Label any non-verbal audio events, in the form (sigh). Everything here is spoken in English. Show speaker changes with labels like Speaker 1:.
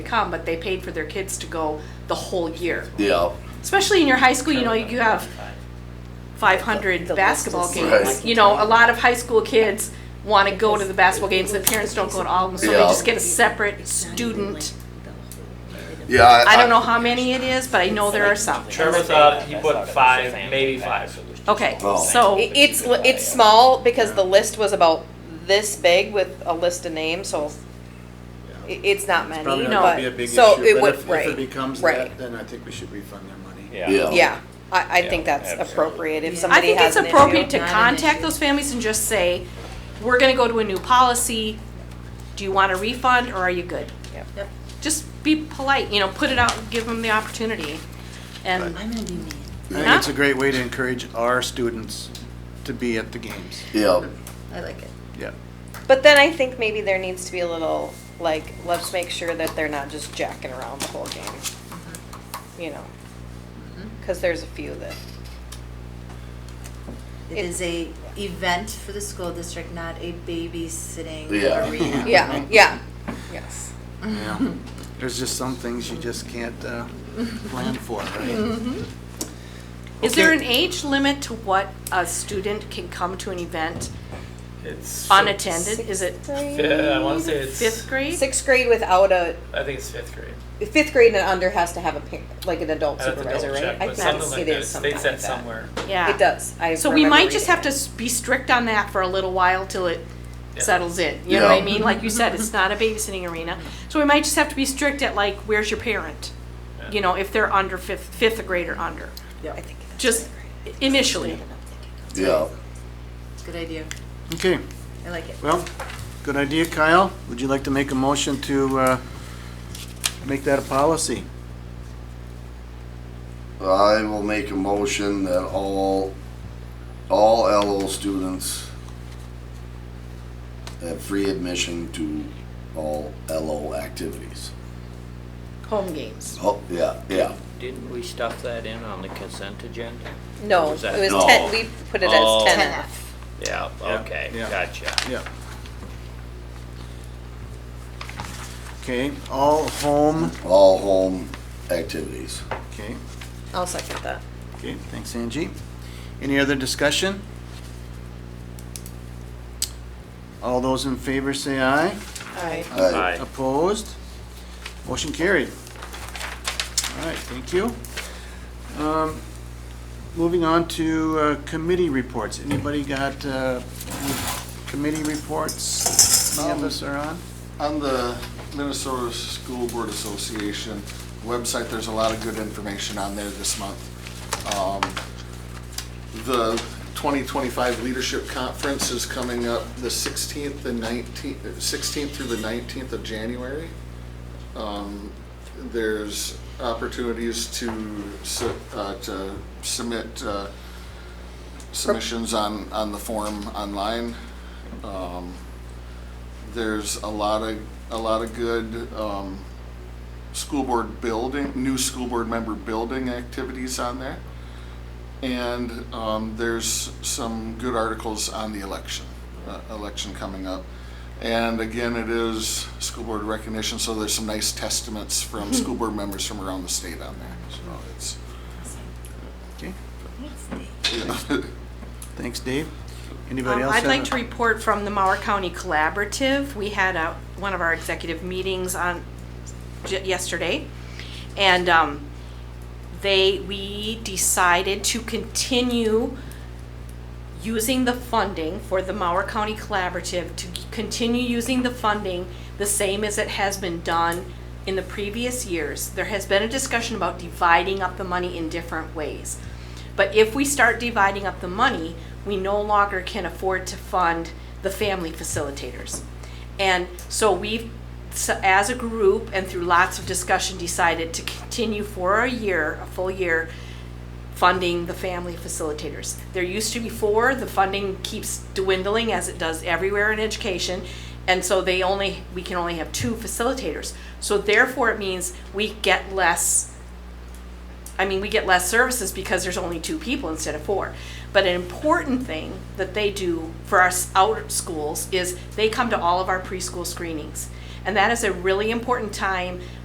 Speaker 1: come, but they paid for their kids to go the whole year.
Speaker 2: Yeah,
Speaker 1: Especially in your high school, you know, you have 500
Speaker 3: The list
Speaker 1: basketball
Speaker 3: is-
Speaker 1: games.
Speaker 2: Right.
Speaker 1: You know, a lot of high school kids want to go to the basketball games. The parents don't go to all of them, so they
Speaker 2: Yeah.
Speaker 1: just get a separate student.
Speaker 2: yeah. I,
Speaker 1: I don't know how many it is, but I know there are some.
Speaker 4: Trevor thought he put five, maybe five.
Speaker 1: Okay,
Speaker 2: Oh.
Speaker 1: so
Speaker 3: It- It's, li- it's small because the list was about this big with a list of names, so i- it's not many,
Speaker 5: Probably not
Speaker 3: but-
Speaker 5: gonna be a big issue,
Speaker 3: so
Speaker 5: but
Speaker 3: it would,
Speaker 5: if, if it
Speaker 3: right,
Speaker 5: becomes
Speaker 3: right.
Speaker 5: that, oh. then I think we should refund their money.
Speaker 2: Yeah.
Speaker 3: Yeah, I, I think
Speaker 6: Yeah,
Speaker 3: that's
Speaker 6: absolutely.
Speaker 3: appropriate if
Speaker 1: I
Speaker 3: somebody
Speaker 1: think it's
Speaker 3: has an
Speaker 1: appropriate
Speaker 3: issue.
Speaker 1: to contact those families and just say, we're going to go to a new policy. Do you want a refund or are you good?
Speaker 3: Yep.
Speaker 1: Just be polite, you know, put it out, give them the opportunity. And
Speaker 7: I'm gonna be mean.
Speaker 5: I think it's a great way to encourage our students to be at the games.
Speaker 2: Yeah,
Speaker 7: I like it.
Speaker 5: Yeah.
Speaker 3: But then I think maybe there needs to be a little, like, let's make sure that they're not just jacking around the whole game. You know, cause there's a few that,
Speaker 7: It is a event for the school district, not a babysitting
Speaker 2: Yeah.
Speaker 7: arena.
Speaker 3: yeah, yeah, yes. (laughs)
Speaker 5: Yeah. There's just some things you just can't, uh, plan for, right?
Speaker 1: is there an
Speaker 5: Okay.
Speaker 1: age limit to what a student can come to an event
Speaker 4: It's
Speaker 1: unattended? Is it
Speaker 4: Yeah, I want to say it's
Speaker 1: fifth grade?
Speaker 3: Sixth grade without a,
Speaker 4: I think it's fifth grade.
Speaker 3: fifth grade and under has to have a parent, like an adult
Speaker 4: I have to
Speaker 3: supervisor,
Speaker 4: double
Speaker 3: right?
Speaker 4: check,
Speaker 3: I
Speaker 4: but
Speaker 3: think
Speaker 4: something like
Speaker 3: it
Speaker 4: that.
Speaker 3: is
Speaker 4: It
Speaker 3: something
Speaker 4: states
Speaker 3: like
Speaker 4: that somewhere.
Speaker 1: Yeah.
Speaker 3: It does. I
Speaker 1: So we might
Speaker 3: remember
Speaker 1: just have
Speaker 3: reading
Speaker 1: to s- be strict on that for a little while till it
Speaker 4: Yeah.
Speaker 1: settles in. You know what I
Speaker 2: Yeah.
Speaker 1: mean? Like you said,
Speaker 3: (laughs)
Speaker 1: it's not a babysitting arena. So we might just have to be strict at like, where's your parent? You know, if they're under fifth, fifth grade or under,
Speaker 3: it. I think that's
Speaker 1: just initially.
Speaker 2: yeah.
Speaker 7: Good idea.
Speaker 5: Okay,
Speaker 7: I like it.
Speaker 5: well, good idea, Kyle. Would you like to make a motion to, uh, make that a policy?
Speaker 2: I will make a motion that all, all LO students have free admission to all LO activities.
Speaker 1: Home games.
Speaker 2: Oh, yeah, yeah.
Speaker 6: Didn't we stuff that in on the consent agenda?
Speaker 3: No, it
Speaker 6: Was that-
Speaker 3: was
Speaker 2: No.
Speaker 3: ten, we put it as
Speaker 6: Oh.
Speaker 3: ten
Speaker 7: 10F.
Speaker 6: Yeah, okay,
Speaker 5: yeah.
Speaker 6: gotcha.
Speaker 5: Yeah. Okay, all home,
Speaker 2: All home activities.
Speaker 5: okay.
Speaker 3: I'll second that.
Speaker 5: Okay, thanks Angie. Any other discussion? All those in favor say aye.
Speaker 3: Alright.
Speaker 6: Aye.
Speaker 2: Aye.
Speaker 5: Opposed? Motion carried. All right, thank you. Um, Moving on to uh, committee reports. Anybody got uh, any committee reports? Any of us are on?
Speaker 8: On the Minnesota School Board Association website, there's a lot of good information on there this month. Um, The 2025 Leadership Conference is coming up the 16th and 19th, 16th through the 19th of January. Um, There's opportunities to, su- uh, to submit uh, submissions on, on the form online. Um, there's a lot of, a lot of good um, school board building, new school board member building activities on there. And um, there's some good articles on the election, uh, election coming up. And again, it is school board recognition, so there's some nice testaments from school board members from around the state on there. So it's,
Speaker 5: Okay,
Speaker 8: (laughs) yeah.
Speaker 5: thanks Dave. Anybody
Speaker 1: Um,
Speaker 5: else?
Speaker 1: I'd
Speaker 5: have
Speaker 1: like
Speaker 5: a-
Speaker 1: to report from the Mauer County Collaborative. We had a, one of our executive meetings on, j- yesterday. And, um, they, we decided to continue using the funding for the Mauer County Collaborative, to continue using the funding the same as it has been done in the previous years. There has been a discussion about dividing up the money in different ways. But if we start dividing up the money, we no longer can afford to fund the family facilitators. And so we've, so as a group and through lots of discussion, decided to continue for a year, a full year, funding the family facilitators. There used to be four, the funding keeps dwindling as it does everywhere in education. And so they only, we can only have two facilitators. So therefore, it means we get less, I mean, we get less services because there's only two people instead of four. But an important thing that they do for our s- outer schools is they come to all of our preschool screenings. And that is a really important time